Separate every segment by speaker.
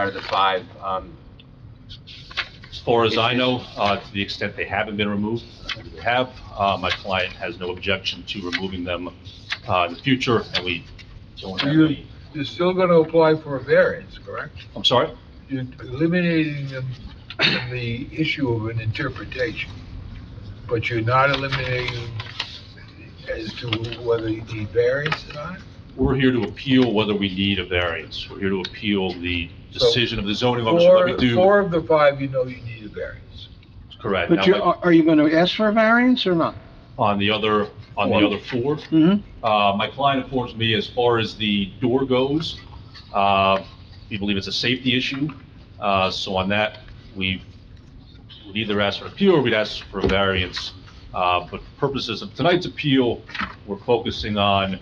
Speaker 1: out of the five, um,
Speaker 2: As far as I know, uh, to the extent they haven't been removed, and they have, uh, my client has no objection to removing them uh, in the future, and we don't have
Speaker 3: You,
Speaker 2: any,
Speaker 3: you're still gonna apply for a variance, correct?
Speaker 2: I'm sorry?
Speaker 3: You're eliminating them from the issue of an interpretation, but you're not eliminating as to whether you need variance or not?
Speaker 2: We're here to appeal whether we need a variance. We're here to appeal the decision of the zoning officer that we
Speaker 3: Four,
Speaker 2: do.
Speaker 3: four of the five, you know you need a variance.
Speaker 2: Correct.
Speaker 4: But
Speaker 2: Now,
Speaker 4: you,
Speaker 2: like,
Speaker 4: are are you going to ask for a variance or not?
Speaker 2: On the other, on the other four,
Speaker 4: Mm-hmm.
Speaker 2: Uh, My client informs me as far as the door goes, uh, we believe it's a safety issue. Uh, So on that, we would either ask for an appeal or we'd ask for a variance. Uh, But for purposes of tonight's appeal, we're focusing on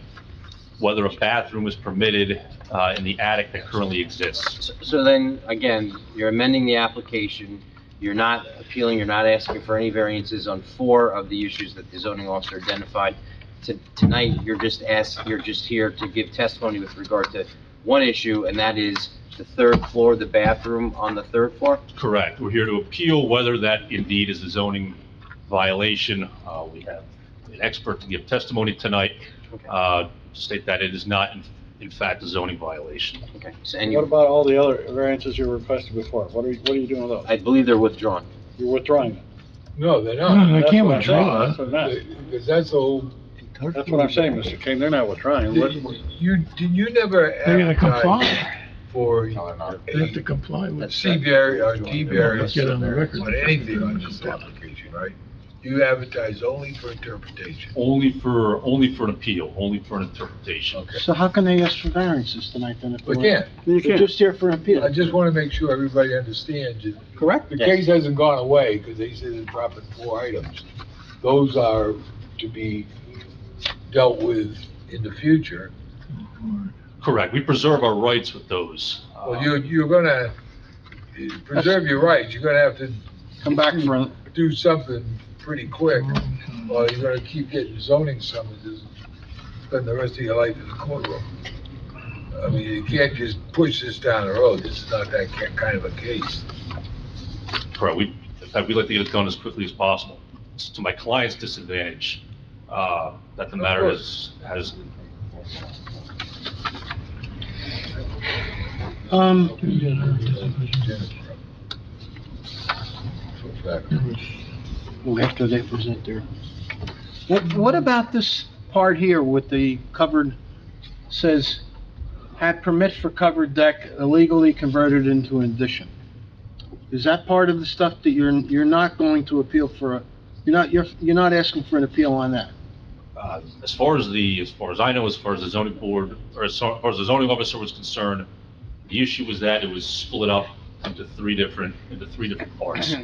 Speaker 2: whether a bathroom is permitted uh, in the attic that currently exists.
Speaker 5: So- So then, again, you're amending the application, you're not appealing, you're not asking for any variances on four of the issues that the zoning officer identified. To- Tonight, you're just asked, you're just here to give testimony with regard to one issue, and that is the third floor, the bathroom on the third floor?
Speaker 2: Correct. We're here to appeal whether that indeed is a zoning violation. Uh, We have an expert to give testimony tonight
Speaker 5: Okay.
Speaker 2: uh, to state that it is not, in- in fact, a zoning violation.
Speaker 5: Okay, so, and
Speaker 6: What
Speaker 5: you,
Speaker 6: about all the other variances you requested before? What are, you- what are you doing with those?
Speaker 5: I believe they're withdrawn.
Speaker 6: You're withdrawing them.
Speaker 3: No, they're not.
Speaker 6: I can't
Speaker 4: withdraw.
Speaker 3: Because that's all,
Speaker 6: That's what I'm saying, Mr. King, they're not withdrawing. What-
Speaker 3: you, did you never
Speaker 7: They're gonna
Speaker 3: advertise
Speaker 7: comply.
Speaker 3: for a
Speaker 7: They have to comply with.
Speaker 3: C variance or D
Speaker 7: Let's
Speaker 3: variance
Speaker 7: Get on the record.
Speaker 3: on anything on this application, right? You advertise only for interpretation.
Speaker 2: Only for, only for an appeal, only for an interpretation.
Speaker 3: Okay.
Speaker 4: So how can they ask for variances tonight then? if they
Speaker 3: But
Speaker 4: want-
Speaker 3: yeah,
Speaker 4: They're just here for an
Speaker 3: I
Speaker 4: appeal,
Speaker 3: just want to make sure everybody understands it.
Speaker 4: correct?
Speaker 3: The
Speaker 5: Yes.
Speaker 3: case hasn't gone away because they said it's dropping four items. Those are to be dealt with in the future.
Speaker 2: Correct. We preserve our rights with those.
Speaker 3: Well, you, you're gonna uh, preserve your rights. You're gonna have to
Speaker 4: Come back for, a-
Speaker 3: do something pretty quick. Or you're gonna keep getting zoning summonses, spend the rest of your life in the courtroom. I mean, you can't just push this down the road. This is not that ki- kind of a case.
Speaker 2: Correct. We, in fact, we'd like to get it done as quickly as possible. It's to my client's disadvantage, uh, that the
Speaker 3: Of
Speaker 2: matter
Speaker 3: course.
Speaker 2: is, has,
Speaker 4: um, well, after they present their. What, what about this part here with the covered, says, had permit for covered deck illegally converted into an addition? Is that part of the stuff that you're, you're not going to appeal for, a- you're not, you're, you're not asking for an appeal on that?
Speaker 2: uh, as far as the, as far as I know, as far as the zoning board, or as far as the zoning officer was concerned, the issue was that it was split up into three different, into three different parts.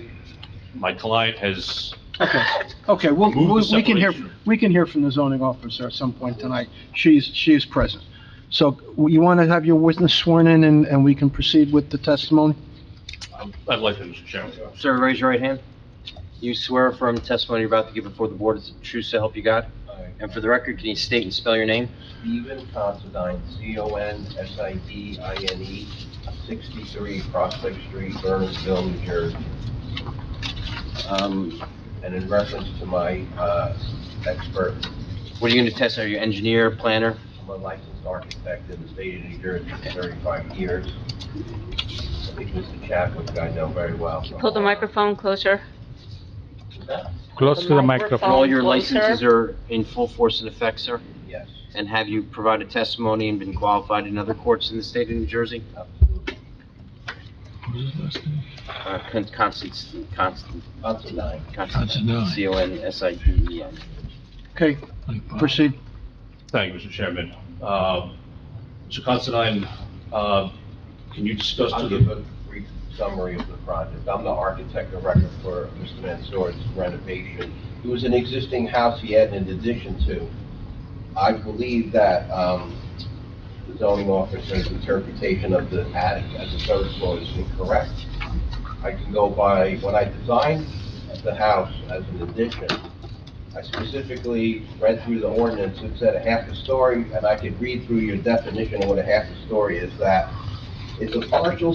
Speaker 2: My client has
Speaker 4: Okay, okay, well,
Speaker 2: Remove the
Speaker 4: we we can hear,
Speaker 2: separation.
Speaker 4: we can hear from the zoning officer at some point tonight. She's, she is present. So you want to have your witness sworn in and, and we can proceed with the testimony?
Speaker 2: um, I'd like to, Mr. Chairman.
Speaker 5: Sir, raise your right hand. You swear affirm testimony you're about to give before the board is the truth so help you God? And for the record, can you state and spell your name?
Speaker 8: Stephen Considine, C-O-N-S-I-D-I-N-E, 63 E, Prospect Street, Burnsville, New Jersey. Um, And in reference to my uh, expert,
Speaker 5: What are you going to test? Are you engineer, planner?
Speaker 8: I'm a licensed architect in the state of New Jersey for 35 years. I think Mr. Chadwick, I know very well.
Speaker 9: Pull the microphone closer.
Speaker 7: Close
Speaker 9: to the microphone.
Speaker 5: And all your
Speaker 9: Closer.
Speaker 5: licenses are in full force and effect, sir?
Speaker 8: Yes,
Speaker 5: And have you provided testimony and been qualified in other courts in the state of New Jersey?
Speaker 8: absolutely.
Speaker 5: Uh, Con- Constance, Constance,
Speaker 8: Considine.
Speaker 5: Constance, C-O-N-S-I-D-E-N.
Speaker 4: Okay, proceed.
Speaker 2: Thank you, Mr. Chairman. Um, Mr. Considine, uh, can you discuss to
Speaker 8: I'll give
Speaker 2: the,
Speaker 8: a brief summary of the project. I'm the architect of record for Mr. Mansour's renovation. It was an existing house he had an addition to. I believe that um, the zoning officer's interpretation of the attic as a third floor is incorrect. I can go by, when I designed the house as an addition, I specifically read through the ordinance, it said a half a story, and I could read through your definition of what a half a story is, that it's a partial